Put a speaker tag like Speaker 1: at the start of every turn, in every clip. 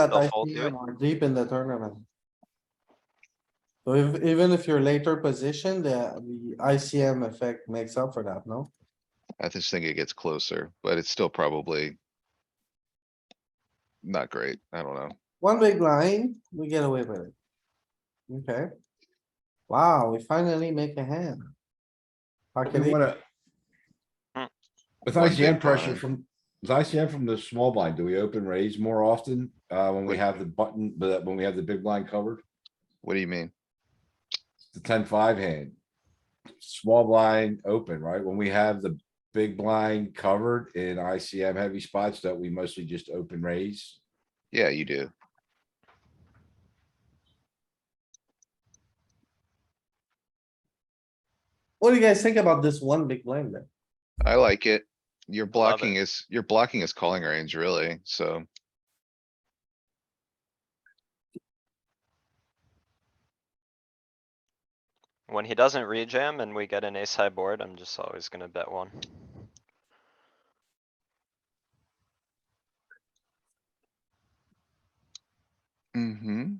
Speaker 1: that
Speaker 2: They'll
Speaker 1: I
Speaker 2: fold to it.
Speaker 1: see are deep in the tournament. So if- even if you're later positioned, the, the ICM effect makes up for that, no?
Speaker 3: I just think it gets closer, but it's still probably. Not great. I don't know.
Speaker 1: One big line, we get away with it. Okay. Wow, we finally make a hand. Pocket
Speaker 4: You
Speaker 1: eight,
Speaker 4: wanna.
Speaker 2: Mm.
Speaker 4: With
Speaker 3: One
Speaker 4: ICM
Speaker 3: big
Speaker 4: pressure
Speaker 3: blind.
Speaker 4: from, with ICM from the small blind, do we open raise more often, uh, when we have the button, but when we have the big blind covered?
Speaker 3: What do you mean?
Speaker 4: The ten five hand. Small blind open, right? When we have the big blind covered in ICM heavy spots that we mostly just open raise.
Speaker 3: Yeah, you do.
Speaker 1: what do you guys think about this one big blind then?
Speaker 3: I like it. You're
Speaker 2: Love it.
Speaker 3: blocking is, you're blocking his calling range really, so.
Speaker 2: When he doesn't rejam and we get an ace high board, I'm just always gonna bet one.
Speaker 3: Mm-hmm.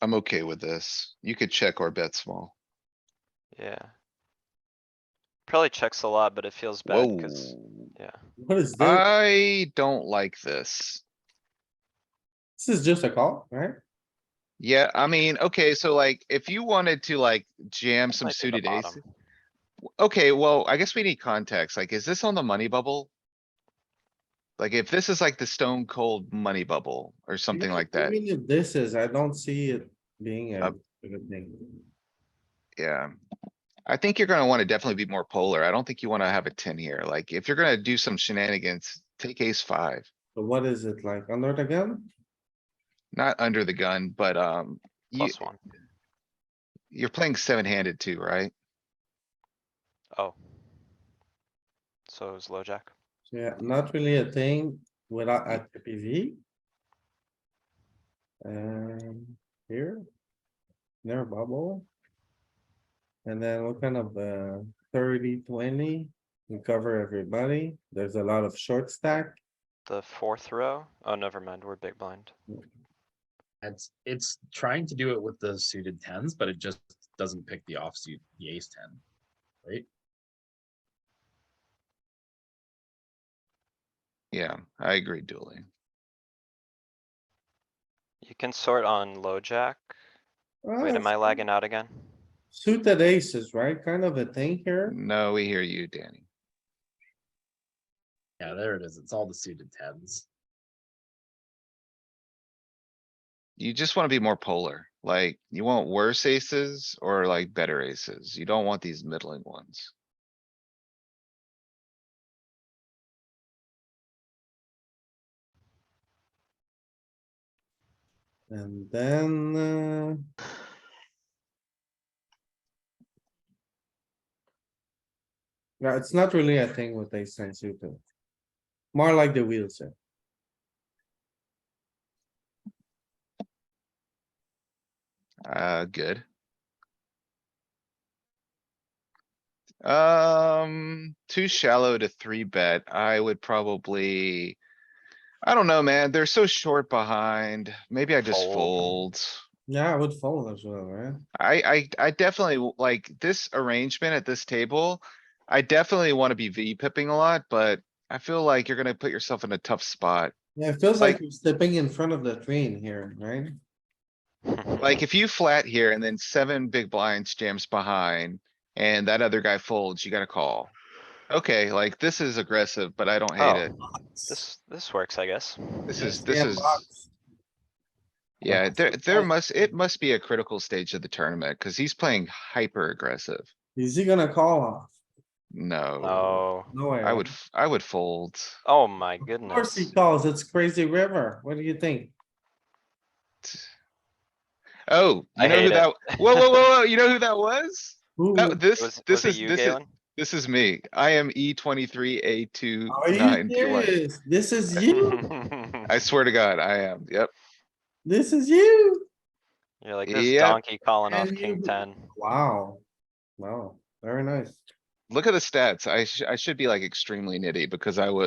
Speaker 3: I'm okay with this. You could check or bet small.
Speaker 2: Yeah. Probably checks a lot, but it feels bad cuz,
Speaker 3: Whoa.
Speaker 2: yeah.
Speaker 1: What is this?
Speaker 3: Uh, I don't like this.
Speaker 1: This is just a call, right?
Speaker 3: Yeah, I mean, okay, so like, if you wanted to like jam some
Speaker 2: Might be the
Speaker 3: suited aces.
Speaker 2: bottom.
Speaker 3: Okay, well, I guess we need context. Like, is this on the money bubble? Like, if this is like the stone cold money bubble or something like that, Uh,
Speaker 1: Even if This is, I don't see it being a
Speaker 3: Up.
Speaker 1: good thing.
Speaker 3: yeah. I think you're gonna wanna definitely be more polar. I don't think you wanna have a ten here. Like, if you're gonna do some shenanigans, take ace five.
Speaker 1: But what is it like under the gun?
Speaker 3: Not under the gun, but, um, you,
Speaker 2: Plus one.
Speaker 3: you're playing seven handed too, right?
Speaker 2: Oh. So it was low jack.
Speaker 1: Yeah, not really a thing without at PV. Um, here. Near bubble. And then what kind of, uh, 30, 20? we cover everybody, there's a lot of short stack.
Speaker 2: The fourth row? Oh, never mind, we're big blind.
Speaker 5: It's it's trying to do it with the suited tens, but it just doesn't pick the offsuit, the ace ten, right?
Speaker 3: Yeah, I agree, dueling.
Speaker 2: You can sort on low jack. Wait,
Speaker 1: Ah,
Speaker 2: am I lagging out again?
Speaker 1: Suited aces, right? Kind of a thing here.
Speaker 3: No, we hear you, Danny.
Speaker 5: Yeah, there it is. It's all the suited tens.
Speaker 3: You just wanna be more polar. Like, you want worse aces or like better aces. You don't want these middling ones.
Speaker 1: And then, uh. Yeah, it's not really a thing with ace ten suited. More like the wheel set.
Speaker 3: Uh, good. Um, too shallow to three bet. I would probably. I don't know, man. They're so short behind. Maybe I just
Speaker 2: Fold.
Speaker 3: fold.
Speaker 1: Yeah, I would fold as well, right?
Speaker 3: I, I, I definitely w- like this arrangement at this table. I definitely wanna be V pipping a lot, but I feel like you're gonna put yourself in a tough spot.
Speaker 1: Yeah, it feels like
Speaker 3: Like-
Speaker 1: you're stepping in front of the train here, right?
Speaker 3: Like if you flat here and then seven big blinds jams behind and that other guy folds, you gotta call. Okay, like this is aggressive, but I don't hate it.
Speaker 2: Oh, This, this works, I guess.
Speaker 3: This
Speaker 1: Yeah,
Speaker 3: is, this
Speaker 1: yeah,
Speaker 3: is,
Speaker 1: box.
Speaker 3: yeah, there, there
Speaker 1: Like-
Speaker 3: must, it must be a critical stage of the tournament cuz he's playing hyper aggressive.
Speaker 1: Is he gonna call off?
Speaker 3: No,
Speaker 2: Oh,
Speaker 1: No way.
Speaker 3: I would,
Speaker 1: right?
Speaker 3: f- I would fold.
Speaker 2: oh my
Speaker 1: Of course he
Speaker 2: goodness.
Speaker 1: calls, it's crazy river. What do you think?
Speaker 3: Oh,
Speaker 2: I
Speaker 3: you know who
Speaker 2: hate it.
Speaker 3: that, whoa, whoa, whoa, whoa, you know who that was?
Speaker 1: Who,
Speaker 3: That,
Speaker 2: Was,
Speaker 3: this,
Speaker 2: was
Speaker 3: this
Speaker 2: it
Speaker 3: is,
Speaker 2: you,
Speaker 3: this is,
Speaker 2: Galen?
Speaker 3: this is me. I am E twenty-three, A two,
Speaker 1: are
Speaker 3: nine,
Speaker 1: you
Speaker 3: two, one.
Speaker 1: serious? This Oh, is you,
Speaker 3: I swear to God, I am. Yep.
Speaker 1: this is you.
Speaker 2: You're like this
Speaker 3: Yep.
Speaker 2: donkey calling off
Speaker 1: And
Speaker 2: king
Speaker 1: you-
Speaker 2: ten.
Speaker 1: Wow, wow, very nice.
Speaker 3: Look at the stats. I should, I should be like extremely nitty because I was